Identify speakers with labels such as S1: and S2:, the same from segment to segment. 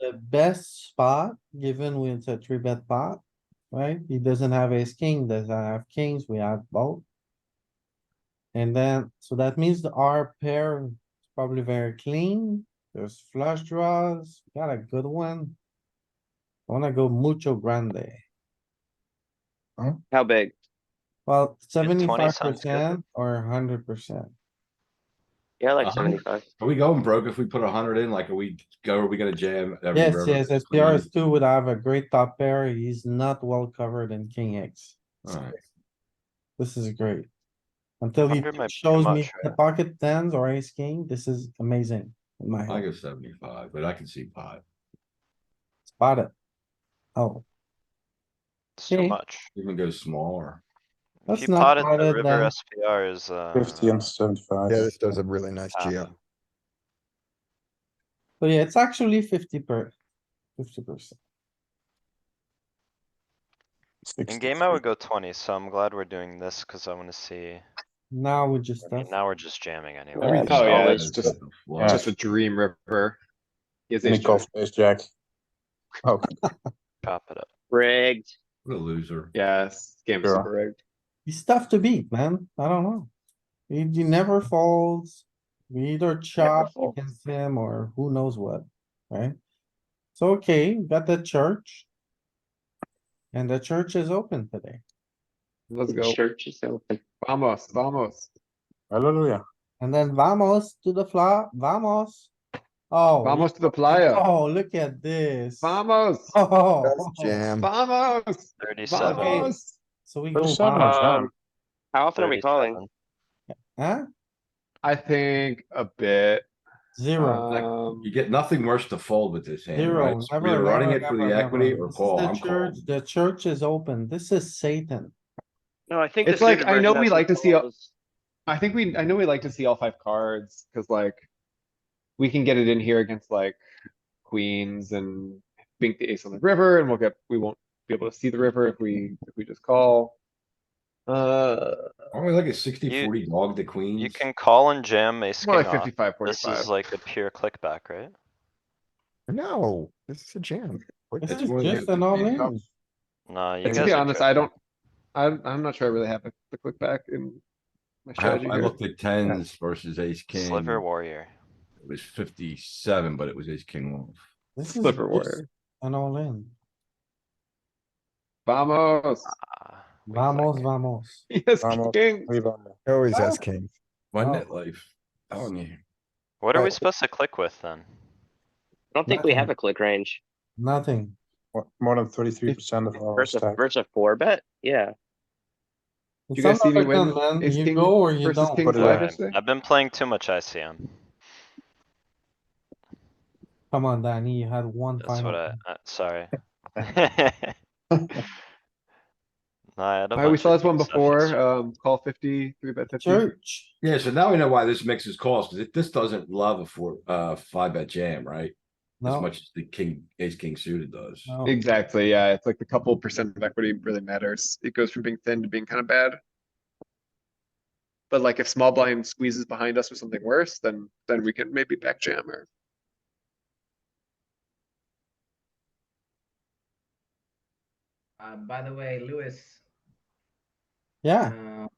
S1: the best spot, given when it's a three bet pot, right? He doesn't have ace king, doesn't have kings, we have both. And then, so that means the R pair is probably very clean, there's flush draws, got a good one. I wanna go mucho grande,
S2: How big?
S1: well,
S3: 20
S1: seventy-five
S3: sounds good.
S1: percent or hundred percent.
S2: Yeah, like
S3: Uh-huh.
S4: A hundred.
S2: seventy-five.
S4: Are we going broke if we put a hundred in? Like, are we go, are we gonna jam? every
S1: Yes,
S4: river?
S1: yes, SPR is two would have a great top pair, he's not well covered in king X.
S4: Alright.
S1: This is great. Until he
S3: 100 might be
S1: shows
S3: too
S1: me
S3: much,
S1: the
S3: right?
S1: pocket tens or ace king, this is amazing. in My
S4: I
S1: head,
S4: go seventy-five, but I can see five.
S1: spot it. Oh,
S3: It's too
S1: Okay.
S3: much.
S4: Even go smaller.
S1: That's
S3: If you
S1: not
S3: potted
S1: part
S3: the
S1: of
S3: river
S1: the-
S3: SPR is, uh.
S5: Fifty and seventy-five.
S6: Yeah, this does a really nice jam.
S1: so yeah, it's actually fifty per, fifty percent.
S3: In game, I would go twenty, so I'm glad we're doing this, cause I wanna see,
S1: Now we just,
S3: I mean,
S1: have-
S3: now we're just jamming anyway.
S4: Everything's
S5: oh, yeah,
S4: always
S5: it's just-
S4: the
S5: yeah.
S4: flush.
S7: Just a dream river. He has ace
S5: Nick off
S7: jack.
S5: ace jack.
S6: Okay.
S3: Chop it up.
S2: Rigged.
S4: What a loser.
S7: Yes, game is
S5: Sure.
S7: super rigged.
S1: he's tough to beat, man. I don't know. He, he never folds. We either chop
S2: folds.
S1: against him or who knows what, right? So, okay, we got the church. And the church is open today.
S7: Let's
S2: The
S7: go.
S2: church is open.
S7: Vamos, vamos,
S5: Hallelujah.
S1: And then vamos to the flop, vamos. Oh.
S7: vamos to the playa.
S1: Oh, look at this.
S7: Vamos,
S1: Oh,
S6: That's jam.
S7: vamos,
S3: Thirty-seven.
S7: vamos.
S1: so we go,
S5: There's so
S1: vamos,
S5: much, huh?
S2: Um, How often are we calling?
S3: 37.
S1: huh?
S7: I think a bit.
S1: Zero.
S7: Um,
S4: You get nothing worse to fold with
S7: Uh,
S4: this hand, right?
S1: Zero,
S4: It's
S1: never,
S4: Either running
S1: never,
S4: it for
S1: never,
S4: the equity
S1: never.
S4: or
S1: This is
S4: call.
S1: the
S4: I'm
S1: church-
S4: calling.
S1: The church is open. This is Satan.
S2: No, I think.
S7: It's
S2: the
S7: like,
S2: suited
S7: I know
S2: version
S7: we
S2: has
S7: like to
S2: some
S7: see a-
S2: calls.
S7: I think we, I know we like to see all five cards, cause like. We can get it in here against like queens and bink the ace on the river and we'll get, we won't be able to see the river if we, if we just call. Uh,
S4: Aren't we like a sixty, forty log to queens?
S3: You can call and jam ace king
S7: more like
S3: off.
S7: fifty-five,
S3: This
S7: forty-five.
S3: is like a pure clickback, right?
S6: No, this is a jam. What
S1: This
S4: It's
S6: the-
S1: is
S4: more than
S1: just an all
S4: fifteen.
S1: in.
S3: Nah, you
S7: And
S3: guys.
S7: to be
S3: are
S7: honest,
S3: tripping.
S7: I don't, I'm, I'm not sure I really have a- the click back in my
S4: I
S7: strategy
S4: I
S7: here.
S4: looked at tens versus ace king.
S3: Sliver
S4: It
S3: warrior.
S4: was fifty-seven, but it was ace king off.
S1: This is
S7: Sliver
S1: just
S7: warrior.
S1: an all in.
S7: Vamos,
S3: Ah, we like
S1: Vamos,
S3: it.
S1: vamos.
S7: yes,
S5: Vamos.
S7: king.
S5: Three bomber.
S6: He Always
S1: Oh.
S6: has king.
S4: My
S1: Oh.
S4: net life. Telling you.
S3: What are we
S6: Right.
S3: supposed to click with then?
S2: I don't think we have a click range.
S1: Nothing.
S5: Mo- More than thirty-three percent of our
S2: Versus,
S5: stack.
S2: versus a four bet? Yeah.
S1: It's
S7: You guys see me
S1: another
S7: win
S1: gun, man.
S7: ace
S1: You
S7: king
S1: go or you
S7: versus
S1: don't.
S7: king
S5: Put it
S7: five
S5: away.
S7: yesterday?
S3: Alright, I've been playing too much ICM.
S1: Come on, Danny, you had one
S3: That's
S1: final.
S3: what I,
S1: thing.
S3: uh, sorry. Nah, I had a
S7: Alright, we
S3: bunch
S7: saw
S3: of
S7: this one
S3: concessions.
S7: before, um, call fifty, three bet fifty.
S1: Church,
S4: Yeah, so now we know why this mixes calls, because this doesn't love a four, uh, five bet jam, right? As
S1: no.
S4: much as the king, ace, king suited does.
S1: no.
S7: Exactly, yeah, it's like the couple percent of equity really matters. It goes from being thin to being kind of bad. But like if small blind squeezes behind us with something worse, then, then we can maybe back jam or.
S8: Uh, by the way, Lewis,
S1: Yeah,
S8: uh,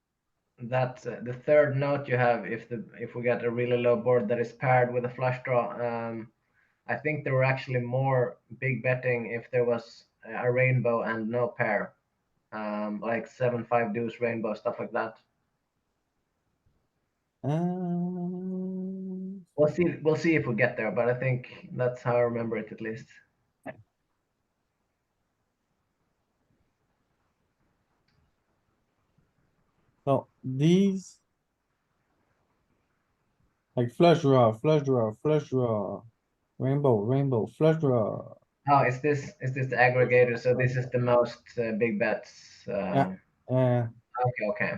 S8: that uh, the third note you have, if the if we get a really low board that is paired with a flush draw, um, I think there were actually more big betting if there was a rainbow and no pair, um, like seven five deuce rainbow stuff like that.
S1: Uh, um,
S8: We'll see. We'll see if we get there, but I think that's how I remember it at least.
S1: so these. Like flush draw, flush draw, flush draw, rainbow, rainbow, flush draw.
S8: Oh, is this is this the aggregator? So this is the most uh, big bets. Um,
S1: Uh,
S8: Okay. Okay.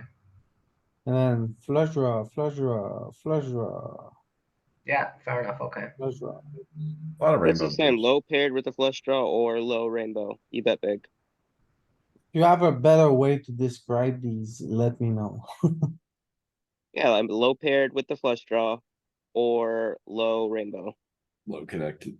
S1: and then flush draw, flush draw, flush draw,
S8: Yeah. Fair enough. Okay.
S1: flush draw.
S4: A lot of
S2: What's
S4: rainbow.
S2: the same?
S4: boards.
S2: Low paired with a flush draw or low rainbow? You bet big.
S1: You have a better way to describe these, let me know.
S2: Yeah, I'm low paired with the flush draw or low rainbow.
S4: Low connected.